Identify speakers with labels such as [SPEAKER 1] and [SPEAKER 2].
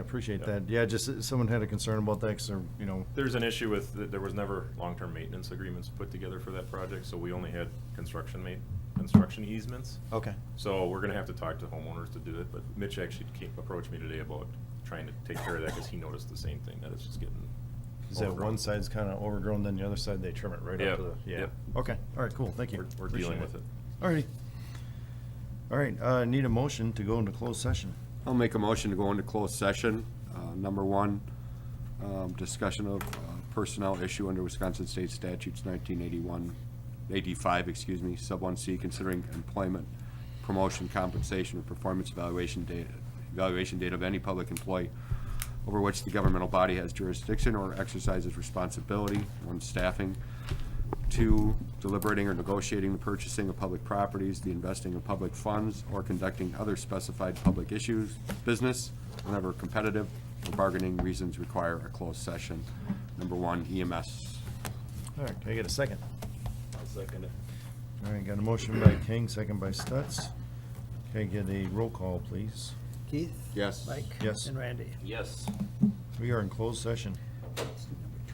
[SPEAKER 1] Appreciate
[SPEAKER 2] Yeah.
[SPEAKER 1] that. Yeah, just, uh, someone had a concern about that, because they're, you know,
[SPEAKER 2] There's an issue with, th- there was never long-term maintenance agreements put together for that project, so we only had construction ma, construction easements.
[SPEAKER 1] okay.
[SPEAKER 2] So we're gonna have to talk to homeowners to do it, but Mitch actually came, approached me today about trying to take care of that, cause he noticed the same thing, that it's just getting.
[SPEAKER 1] Is that
[SPEAKER 2] overgrown.
[SPEAKER 1] one side's kind of overgrown, then the other side, they trim it right
[SPEAKER 2] Yeah,
[SPEAKER 1] up to the, yeah.
[SPEAKER 2] yep.
[SPEAKER 1] Okay, all right, cool, thank you.
[SPEAKER 2] We're, we're dealing
[SPEAKER 1] Appreciate
[SPEAKER 2] with it.
[SPEAKER 1] All righty. All right, uh, need a motion to go into closed session.
[SPEAKER 3] I'll make a motion to go into closed session. Uh, Number one, um, discussion of uh, personnel issue under Wisconsin State Statutes 1981, 85, excuse me, sub 1C, considering employment, promotion, compensation, or performance evaluation data, evaluation data of any public employee over which the governmental body has jurisdiction or exercises responsibility, one, staffing, Two, deliberating or negotiating the purchasing of public properties, the investing of public funds, or conducting other specified public issues, business, whenever competitive or bargaining reasons require a closed session. Number one, E EMS.
[SPEAKER 1] All right, can I get a second?
[SPEAKER 2] I'll second it.
[SPEAKER 1] All right, got a motion by King, second by Stutz. Can I get a roll call, please?
[SPEAKER 4] Keith?
[SPEAKER 3] Yes.
[SPEAKER 4] Mike?
[SPEAKER 1] Yes.
[SPEAKER 4] And Randy?
[SPEAKER 2] Yes.
[SPEAKER 1] We are in closed session.